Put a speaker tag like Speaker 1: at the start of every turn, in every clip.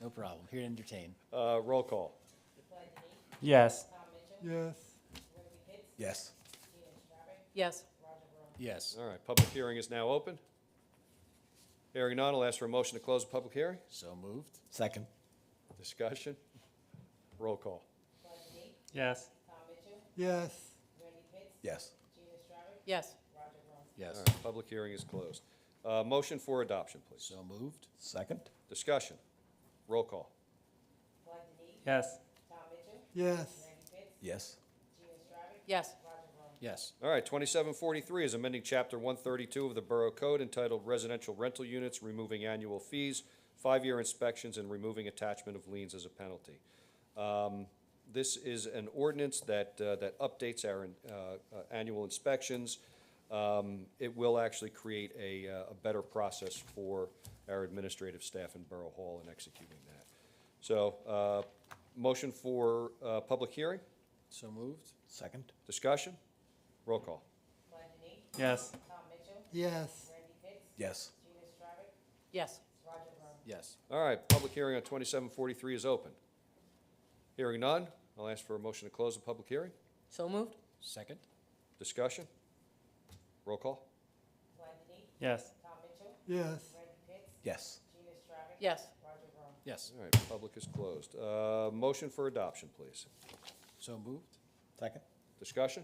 Speaker 1: No problem. Here to entertain.
Speaker 2: Uh, Roll call.
Speaker 3: Yes.
Speaker 4: Yes.
Speaker 5: Yes.
Speaker 6: Yes.
Speaker 1: Yes.
Speaker 2: All right, public hearing is now open. Hearing none, I'll ask for a motion to close the public hearing.
Speaker 1: So moved.
Speaker 5: Second.
Speaker 2: Discussion. Roll call.
Speaker 3: Yes.
Speaker 4: Yes.
Speaker 5: Yes.
Speaker 6: Yes.
Speaker 2: All
Speaker 1: Yes.
Speaker 2: right, public hearing is closed. Uh, Motion for adoption, please.
Speaker 1: So moved.
Speaker 5: Second.
Speaker 2: Discussion. Roll call.
Speaker 3: Yes.
Speaker 4: Yes.
Speaker 5: Yes.
Speaker 6: Yes.
Speaker 1: Yes.
Speaker 2: All right, 2743 is amending Chapter 132 of the Borough Code entitled Residential Rental Units, removing annual fees, five-year inspections, and removing attachment of liens as a penalty. Um, This is an ordinance that, uh, that updates our uh, uh, annual inspections. Um, It will actually create a, uh, a better process for our administrative staff in Borough Hall in executing that. So, uh, motion for uh, public hearing,
Speaker 1: So moved.
Speaker 5: Second.
Speaker 2: discussion, roll call.
Speaker 3: Yes.
Speaker 4: Yes.
Speaker 5: Yes.
Speaker 6: Yes.
Speaker 1: Yes.
Speaker 2: All right, public hearing on 2743 is open. Hearing none, I'll ask for a motion to close the public hearing.
Speaker 6: So moved?
Speaker 1: Second.
Speaker 2: Discussion? Roll call?
Speaker 3: Yes.
Speaker 4: Yes.
Speaker 5: Yes.
Speaker 6: Yes.
Speaker 1: Yes.
Speaker 2: All right, public is closed. Uh, Motion for adoption, please.
Speaker 1: So moved.
Speaker 5: Second.
Speaker 2: Discussion?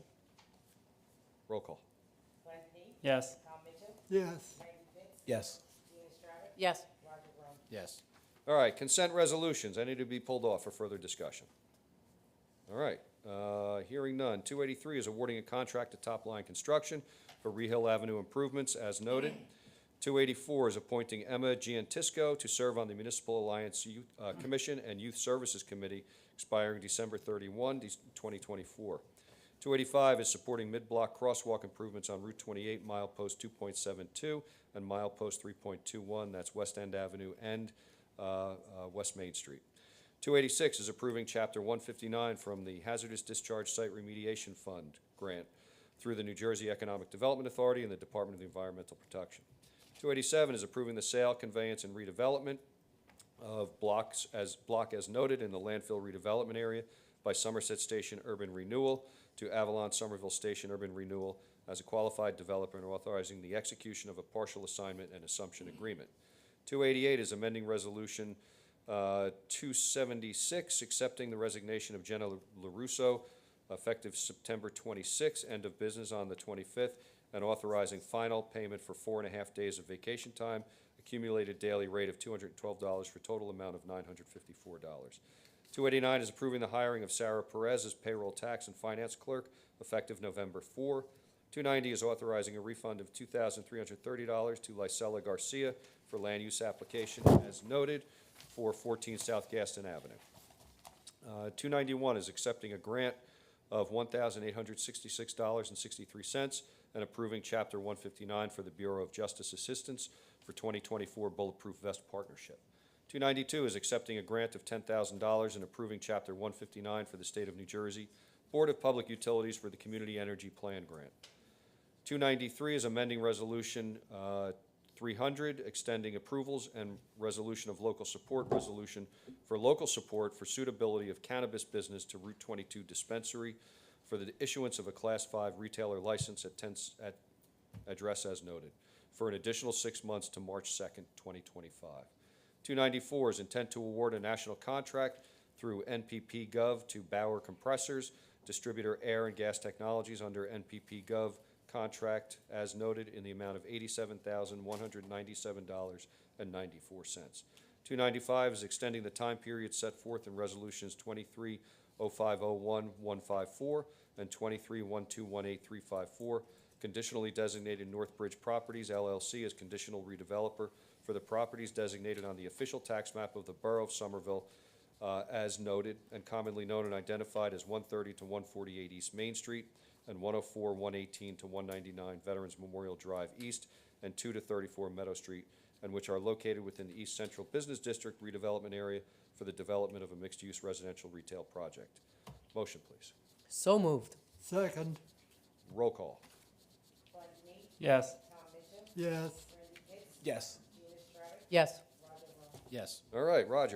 Speaker 2: Roll call?
Speaker 3: Yes.
Speaker 4: Yes.
Speaker 5: Yes.
Speaker 6: Yes.
Speaker 1: Yes.
Speaker 2: All right, consent resolutions, any to be pulled off for further discussion? All right, uh, hearing none. 283 is awarding a contract to Top Line Construction for Rehill Avenue improvements, as noted. 284 is appointing Emma Giantisco to serve on the Municipal Alliance Youth uh, Commission and Youth Services Committee, expiring December 31, de- 2024. 285 is supporting mid-block crosswalk improvements on Route 28, mile post 2.72 and mile post 3.21, that's West End Avenue and uh, uh, West Main Street. 286 is approving Chapter 159 from the Hazardous Discharge Site Remediation Fund grant through the New Jersey Economic Development Authority and the Department of Environmental Protection. 287 is approving the sale, conveyance, and redevelopment of blocks as, block as noted in the landfill redevelopment area by Somerset Station Urban Renewal to Avalon Somerville Station Urban Renewal as a qualified developer and authorizing the execution of a partial assignment and assumption agreement. 288 is amending Resolution uh, 276, accepting the resignation of Jenna LaRusso effective September 26, end of business on the 25th, and authorizing final payment for four and a half days of vacation time, accumulated daily rate of $212 for total amount of $954. 289 is approving the hiring of Sarah Perez as payroll tax and finance clerk effective November 4. 290 is authorizing a refund of $2,330 to Lysella Garcia for land use application as noted for 14 South Gaston Avenue. Uh, 291 is accepting a grant of $1,866.63 and approving Chapter 159 for the Bureau of Justice Assistance for 2024 Bulletproof Vest Partnership. 292 is accepting a grant of $10,000 and approving Chapter 159 for the State of New Jersey Board of Public Utilities for the Community Energy Plan Grant. 293 is amending Resolution uh, 300, extending approvals and resolution of local support, resolution for local support for suitability of cannabis business to Route 22 dispensary for the issuance of a Class 5 retailer license at 10, s- at address as noted, for an additional six months to March 2nd, 2025. 294 is intent to award a national contract through NPP Gov to Bauer Compressors, distributor Air and Gas Technologies under NPP Gov contract as noted in the amount of $87,197.94. 295 is extending the time period set forth in Resolutions 23-0501-154 and 23-1218-354, conditionally designated North Bridge Properties LLC as conditional redeveloper for the properties designated on the official tax map of the Borough of Somerville uh, as noted and commonly known and identified as 130 to 148 East Main Street and 104, 118 to 199 Veterans Memorial Drive East and 2 to 34 Meadow Street, and which are located within the East Central Business District redevelopment area for the development of a mixed-use residential retail project. Motion, please.
Speaker 6: So moved?
Speaker 4: Second.
Speaker 2: Roll call.
Speaker 3: Yes.
Speaker 4: Yes.
Speaker 5: Yes.
Speaker 6: Yes.
Speaker 1: Yes.
Speaker 2: All right, Roger.